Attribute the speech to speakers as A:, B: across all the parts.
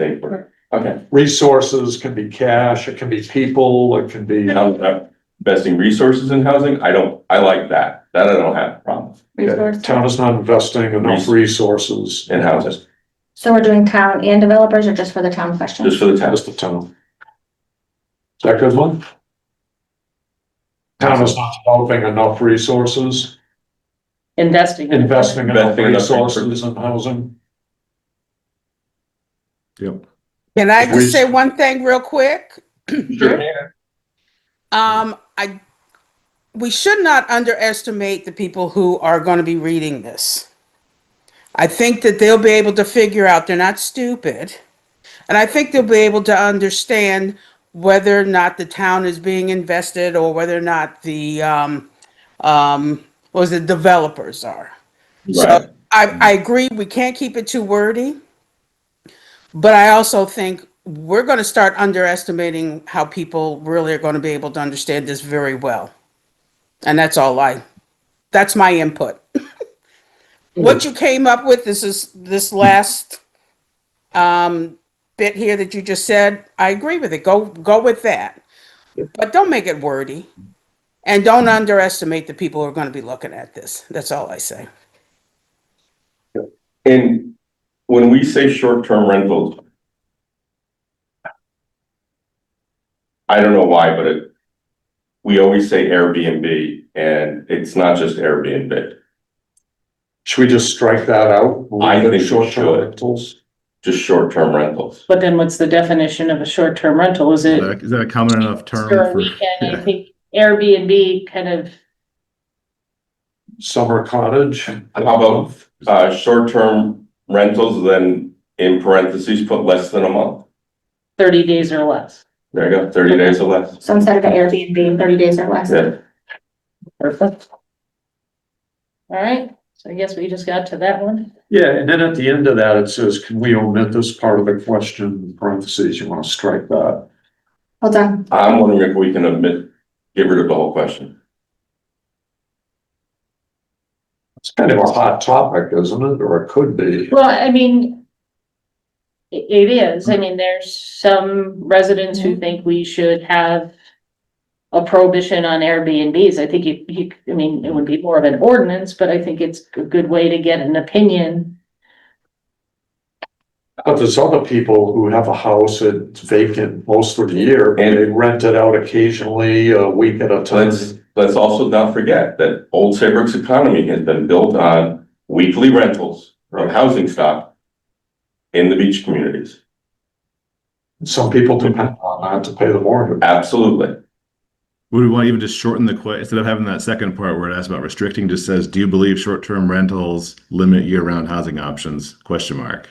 A: they were, okay,
B: Resources can be cash, it can be people, it can be,
A: now, uh, investing resources in housing, I don't, I like that, that I don't have a problem with,
C: resource.
B: town is not investing enough resources.
A: in houses,
C: So we're doing town and developers or just for the town question?
A: just for the town.
B: That's the town. Is that a good one? Town is not developing enough resources,
D: investing.
B: investing enough
A: Investing enough resources.
B: resources in housing.
E: Can I
B: We-
E: just say one thing real quick? Um, I, we should not underestimate the people who are going to be reading this. I think that they'll be able to figure out they're not stupid. And I think they'll be able to understand whether or not the town is being invested or whether or not the, um, um, what was it, developers are.
A: Right,
E: I, I agree, we can't keep it too wordy. But I also think we're gonna start underestimating how people really are gonna be able to understand this very well. And that's all I, that's my input. What you came up with, this is, this last um, bit here that you just said, I agree with it, go, go with that. But don't make it wordy. And don't underestimate the people who are gonna be looking at this, that's all I say.
A: and when we say short-term rentals. I don't know why, but it, we always say Airbnb, and it's not just Airbnb,
B: Should we just strike that out?
A: I
B: Leave it
A: think we
B: short-term
A: should.
B: rentals?
A: just short-term rentals.
D: But then what's the definition of a short-term rental? Is
F: Is
D: it
F: that- is that a common enough term
D: for a
F: for,
D: weekend? I
F: yeah.
D: think Airbnb kind of,
B: Summer cottage? How
A: How about, uh, short-term rentals, then in parentheses, put less than a month.
D: thirty days or less.
A: There you go, thirty days or less.
C: So instead of an Airbnb, thirty days or less.
A: Yeah,
D: Perfect. All right, so I guess we just got to that one.
B: Yeah, and then at the end of that, it says, can we omit this part of the question, parentheses, you wanna strike that?
C: Hold on,
A: I'm wondering if we can admit, get rid of the whole question.
B: It's kind of a hot topic, isn't it? Or it could be.
D: Well, I mean, i- it is. I mean, there's some residents who think we should have a prohibition on Airbnbs. I think you, you, I mean, it would be more of an ordinance, but I think it's a good way to get an opinion.
B: But there's other people who have a house that's vacant most of the year, and they rent it out occasionally, a week at
A: So
B: a time.
A: let's, let's also not forget that Old Saybrook's economy has been built on weekly rentals of housing stock in the beach communities.
B: Some people depend on that to pay the mortgage.
A: Absolutely.
F: would we want to even just shorten the que, instead of having that second part where it asks about restricting, just says, do you believe short-term rentals limit year-round housing options? Question mark.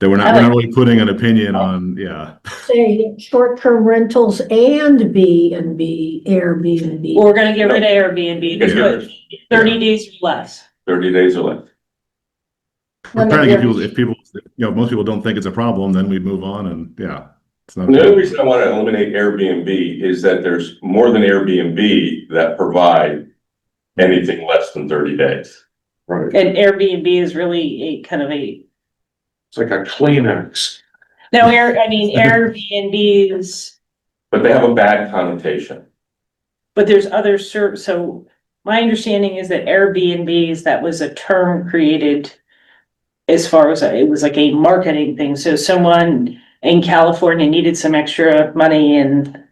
F: That we're not, we're not really putting an opinion on, yeah.
G: say short-term rentals and B and B Airbnb.
D: We're gonna get rid of Airbnb,
A: Get rid
D: just
A: of
D: put thirty days or less.
A: Thirty days or less.
F: We're
C: Limit
F: trying to get
C: your-
F: people, if people, you know, most people don't think it's a problem, then we move on and, yeah. It's not.
A: The only reason I want to eliminate Airbnb is that there's more than Airbnb that provide anything less than thirty days.
B: Right.
D: And Airbnb is really a kind of a,
B: It's like a Kleenex.
D: no, Air, I mean, Airbnbs,
A: But they have a bad connotation.
D: but there's other ser, so my understanding is that Airbnbs, that was a term created as far as, it was like a marketing thing. So someone in California needed some extra money and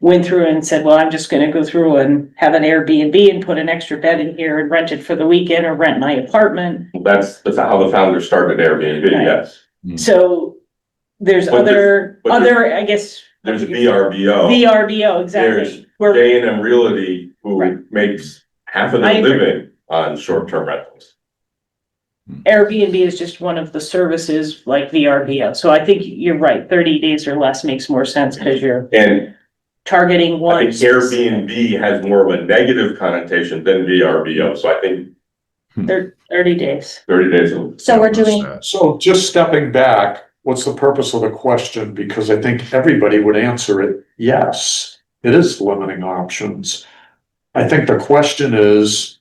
D: went through and said, well, I'm just gonna go through and have an Airbnb and put an extra bed in here and rent it for the weekend or rent my apartment.
A: That's, that's how the founder started Airbnb,
D: Right.
A: yes.
D: So there's
A: Hmm. But
D: other,
A: but there's-
D: other, I guess.
A: There's VRBO,
D: VRBO,
A: There's
D: exactly. Where,
A: J and M Realty,
D: Right.
A: who makes half of their
D: I agree.
A: living on short-term rentals.
D: Airbnb is just one of the services like VRBO. So I think you're right, thirty days or less makes more sense because you're
A: And
D: targeting
A: I
D: one.
A: think Airbnb has more of a negative connotation than VRBO, so I think
D: Thir- Thirty days.
A: thirty days. will-
C: So we're doing
B: So just stepping back, what's the purpose of the question? Because I think everybody would answer it, yes, it is limiting options. I think the question is,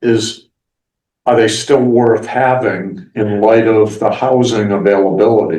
B: is are they still worth having in light of the housing availability?